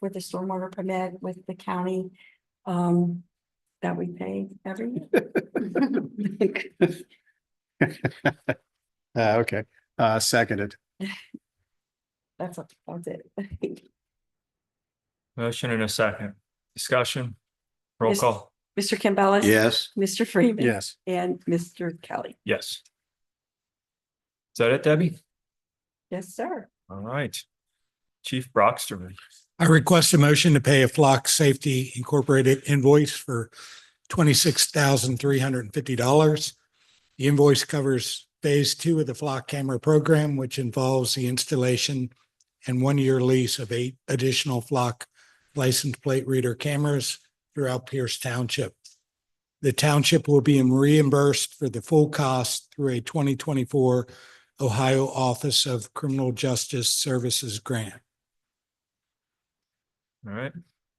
with the stormwater permit with the county, um, that we pay every year. Uh, okay, uh, seconded. That's, that's it. Motion in a second. Discussion. Roll Yes. call. Mr. Campbell. Yes, Mr. Freeman. Yes, And Mr. Kelly. Yes. Is that it, Debbie? Yes, sir. All right. Chief Brockstrom. I request a motion to pay a Flock Safety Incorporated invoice for twenty-six thousand three hundred and fifty dollars. The invoice covers phase two of the Flock camera program, which involves the installation and one-year lease of eight additional Flock license plate reader cameras throughout Pierce Township. The township will be reimbursed for the full cost through a twenty twenty-four Ohio Office of Criminal Justice Services grant. All right.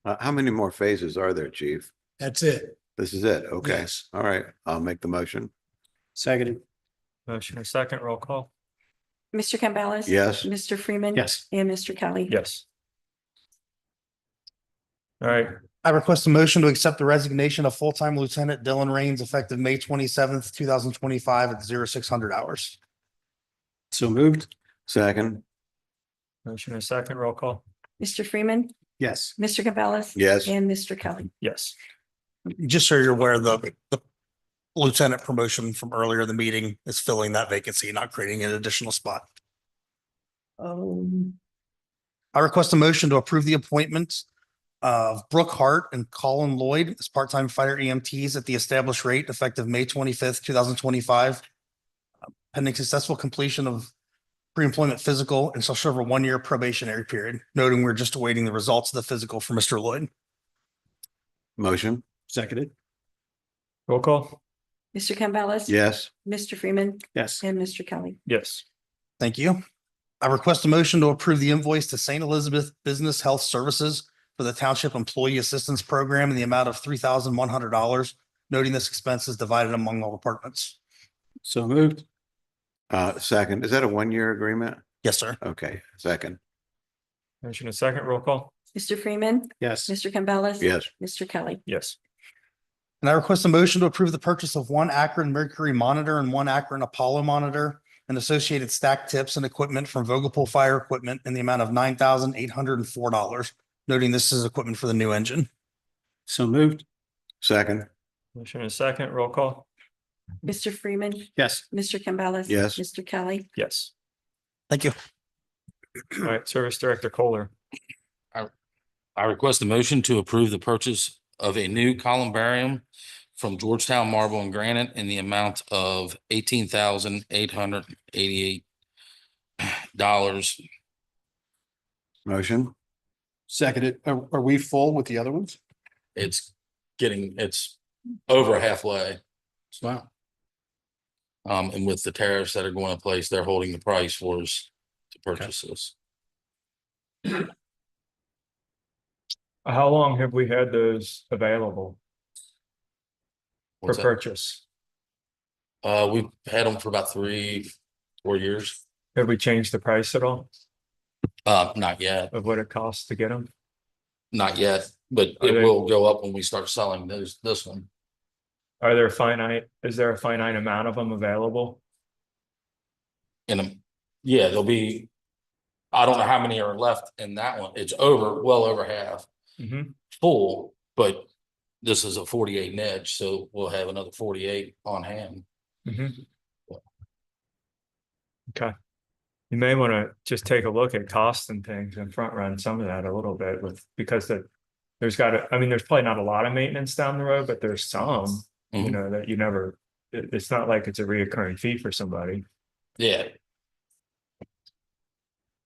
uh, how many more phases are there, chief? That's it. This is it, okay, Yes. all right, I'll make the motion, seconded. Motion in a second. Roll call. Mr. Campbell. yes, Mr. Freeman. Yes. And Mr. Kelly. Yes. All right. I request a motion to accept the resignation of full-time Lieutenant Dylan Rains effective May twenty-seventh, two thousand twenty-five at zero six hundred hours. So moved. second, Motion in a second. Roll call. Mr. Freeman. Yes. Mr. Campbell. yes, And Mr. Kelly. Yes. Just so you're aware, the, the lieutenant promotion from earlier in the meeting is filling that vacancy, not creating an additional spot. Um, I request a motion to approve the appointment of Brooke Hart and Colin Lloyd as part-time fire EMTs at the established rate effective May twenty-fifth, two thousand twenty-five. Pending successful completion of pre-employment physical and shall serve a one-year probationary period, noting we're just awaiting the results of the physical for Mr. Lloyd. motion, Seconded. Roll call. Mr. Campbell. yes, Mr. Freeman Yes. and Mr. Kelly. Yes. Thank you. I request a motion to approve the invoice to St. Elizabeth Business Health Services for the Township Employee Assistance Program in the amount of three thousand one hundred dollars, noting this expense is divided among all departments. So moved. uh, second, is that a one-year agreement? Yes, sir. Okay, second, Motion in a second. Roll call. Mr. Freeman. Yes. Mr. Campbell. yes, Mr. Kelly. Yes. And I request a motion to approve the purchase of one Akron Mercury monitor and one Akron Apollo monitor and associated stack tips and equipment from Vogapool Fire Equipment in the amount of nine thousand eight hundred and four dollars, noting this is equipment for the new engine. So moved. second, Motion in a second. Roll call. Mr. Freeman. Yes. Mr. Campbell. Yes. Mr. Kelly. Yes. Thank you. All right. Service Director Kohler. I request a motion to approve the purchase of a new columbarium from Georgetown Marble and Granite in the amount of eighteen thousand eight hundred eighty-eight dollars. motion, Seconded. Are, are we full with the other ones? It's getting, it's over halfway. It's not. Um, and with the tariffs that are going in place, they're holding the price for us to purchase this. How long have we had those available for What's that? purchase? Uh, we've had them for about three, four years. Have we changed the price at all Uh, not yet. of what it costs to get them? Not yet, but Are they- it will go up when we start selling those, this one. Are there finite, is there a finite amount of them available? And, um, yeah, there'll be, I don't know how many are left in that one. It's over, well over half Mm-hmm. full, but this is a forty-eight edge, so we'll have another forty-eight on hand. Mm-hmm. Okay. You may want to just take a look at costs and things and front run some of that a little bit with, because the, there's got to, I mean, there's probably not a lot of maintenance down the road, but there's some, you Mhm. know, that you never, it- it's not like it's a reoccurring fee for somebody. Yeah,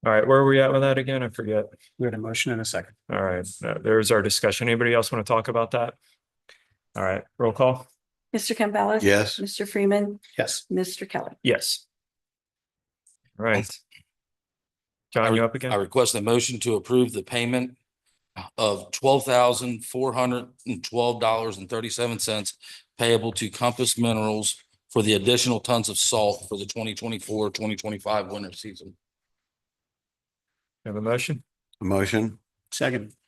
All right, where are we at with that again? I forget. We had a motion and a second. All right, uh, there's our discussion. Anybody else want to talk about that? All right, roll call. Mr. Campbell. yes, Mr. Freeman. Yes. Mr. Kelly. Yes. All Right. John, you up I again? request a motion to approve the payment of twelve thousand four hundred and twelve dollars and thirty-seven cents payable to Compass Minerals for the additional tons of salt for the 2024-2025 winter season. Have a motion? motion, Seconded.